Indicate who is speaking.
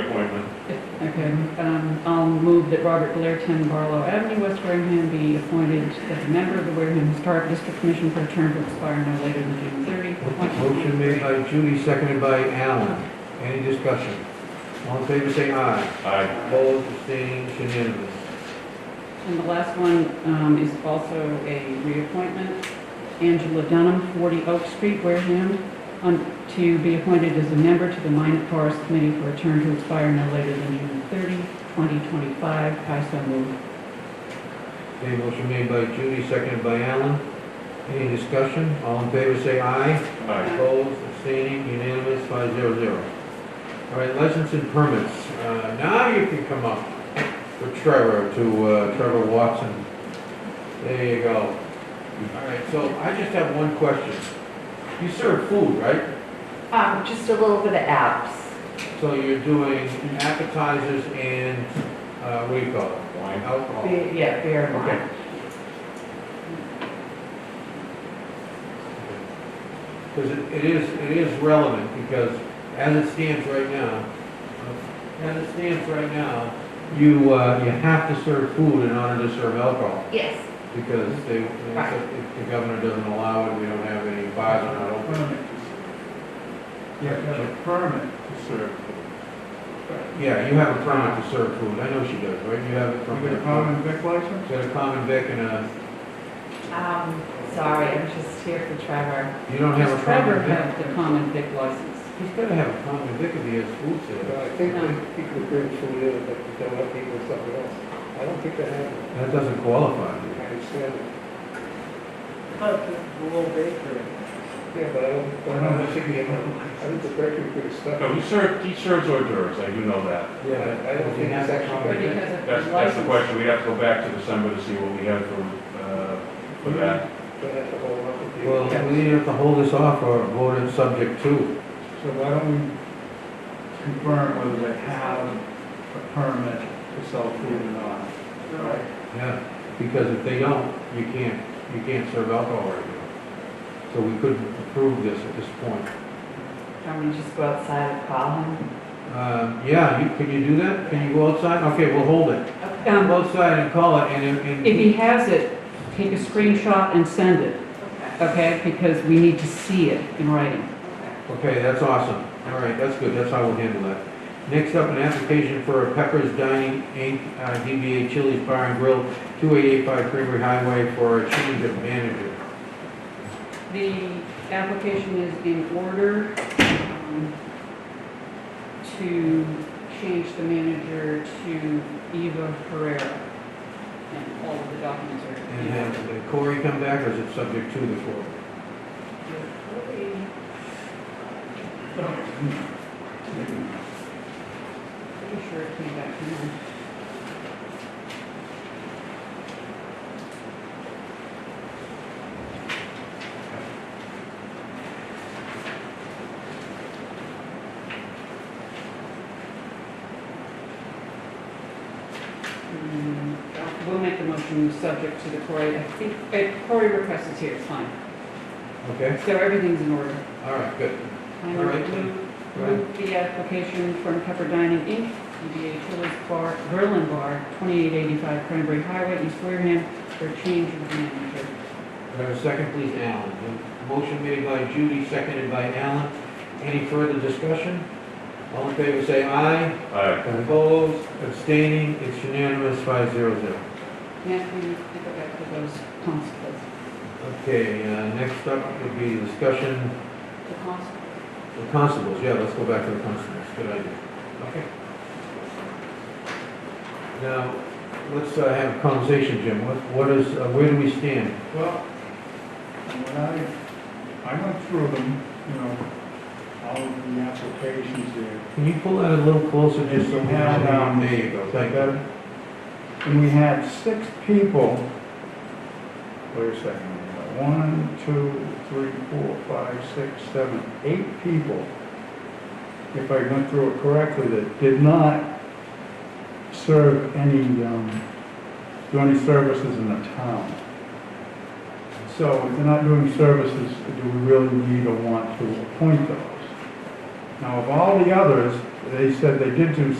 Speaker 1: reappointment.
Speaker 2: Okay, um, I'll move that Robert Blairton, Barlow Avenue, West Wareham, be appointed as a member of the Wareham Historic District Commission for a term to expire no later than June 30.
Speaker 3: Motion made by Judy, seconded by Alan. Any discussion? All in favor, say aye.
Speaker 1: Aye.
Speaker 3: Opposed, abstaining, it's unanimous.
Speaker 2: And the last one um, is also a reappointment. Angela Dunham, 40 Oak Street, Wareham, on- to be appointed as a member to the Minot Forest Committee for a term to expire no later than June 30, 2025. I so move.
Speaker 3: Okay, motion made by Judy, seconded by Alan. Any discussion? All in favor, say aye.
Speaker 1: Aye.
Speaker 3: Opposed, abstaining, unanimous, five zero zero. All right, license and permits. Uh, Now you can come up with Trevor to uh, Trevor Watson. There you go. All right, so I just have one question. You serve food, right?
Speaker 4: Um, just a little bit of apps.
Speaker 3: So you're doing appetizers and, uh, what do you call it?
Speaker 1: Wine.
Speaker 3: Alcohol.
Speaker 4: Be- Yeah, beer and wine.
Speaker 3: Because it it is, it is relevant, because as it stands right now, uh, as it stands right now, you, uh, you have to serve food in order to serve alcohol,
Speaker 4: Yes.
Speaker 3: because they, they
Speaker 4: Right.
Speaker 3: said if the governor doesn't allow it, we don't have any bars are not open.
Speaker 5: permit. You have to have a permit to serve.
Speaker 3: Yeah, you have a permit to serve food, I know she does, right? You have a
Speaker 5: You get
Speaker 3: permit.
Speaker 5: a common vic license?
Speaker 3: You got a common vic and a,
Speaker 4: Um, sorry, I'm just here for Trevor.
Speaker 3: you don't have a
Speaker 2: Does Trevor
Speaker 3: common vic?
Speaker 2: have the common vic license?
Speaker 3: He's gotta have a common vic if he has food sales.
Speaker 6: I think that people bring food in, but you don't let people something else. I don't think that happened.
Speaker 3: That doesn't qualify.
Speaker 6: I
Speaker 3: dude.
Speaker 6: understand it.
Speaker 5: But the little bakery.
Speaker 6: Yeah, but I don't, I don't think he, I think the record could have stuck.
Speaker 1: No, he served, he serves hors d'oeuvres, I do know that.
Speaker 6: Yeah, I- I don't
Speaker 3: Does he
Speaker 6: think
Speaker 3: have
Speaker 6: it's
Speaker 3: that
Speaker 2: But
Speaker 3: common
Speaker 6: actually-
Speaker 2: he has
Speaker 3: vic?
Speaker 2: a
Speaker 1: That's, that's the question, we have to go back to December to see what we have for, uh, for that.
Speaker 6: Don't have to hold up with you.
Speaker 3: Well, we either have to hold this off or vote it subject to.
Speaker 5: So why don't we confirm whether they have a permit to sell food or not?
Speaker 3: Yeah. Because if they don't, you can't, you can't serve alcohol right now. So we couldn't approve this at this point.
Speaker 4: Can we just go outside and call him?
Speaker 3: Uh, yeah, you, can you do that? Can you go outside? Okay, we'll hold it.
Speaker 4: Okay.
Speaker 2: Um,
Speaker 3: Go outside and call it and, and.
Speaker 2: If he has it, take a screenshot and send it,
Speaker 4: Okay.
Speaker 2: okay? Because we need to see it in writing.
Speaker 3: Okay, that's awesome. All right, that's good, that's how we'll handle that. Next up, an application for Pepper's Dining Inc., uh, DBA Chili's Bar and Grill, 2885 Creamery Highway for a change of manager.
Speaker 2: The application is in order um, to change the manager to Eva Herrera. And all of the documents are.
Speaker 3: And have did Corey come back, or is it subject to the Corey?
Speaker 2: Pretty sure it came back. Hang on. Mm, We'll make the motion subject to the Cory, I think, uh, Cory request is here, it's fine.
Speaker 3: Okay,
Speaker 2: So everything's in order.
Speaker 3: all right, good.
Speaker 2: I
Speaker 3: All right.
Speaker 2: move,
Speaker 3: Go ahead.
Speaker 2: move the application from Pepper Dining Inc., DBA Chili's Bar, Berlin Bar, 2885 Cranberry Highway, East Wareham, for a change of manager.
Speaker 3: Do I have a second, please, Alan? The Motion made by Judy, seconded by Alan. Any further discussion? All in favor, say aye.
Speaker 1: Aye.
Speaker 3: Opposed, abstaining, it's unanimous, 500.
Speaker 2: Matt, can you pick up after those constables?
Speaker 3: Okay, uh, next up would be discussion,
Speaker 2: The constables?
Speaker 3: the constables, yeah, let's go back to the constables, good idea. Okay. Now, let's uh, have a conversation, Jim, what, what is, uh, where do we stand?
Speaker 5: Well, when I, I went through them, you know, all of the applications there.
Speaker 3: Can you pull that a little closer, just so we
Speaker 5: Yeah,
Speaker 3: know?
Speaker 5: um,
Speaker 3: There you go, thank you.
Speaker 5: better? And we had six people, wait a second, one, two, three, four, five, six, seven, eight people, if I went through it correctly, that did not serve any, um, do any services in the town. So if they're not doing services, do we really need or want to appoint those? Now, of all the others, they said they did do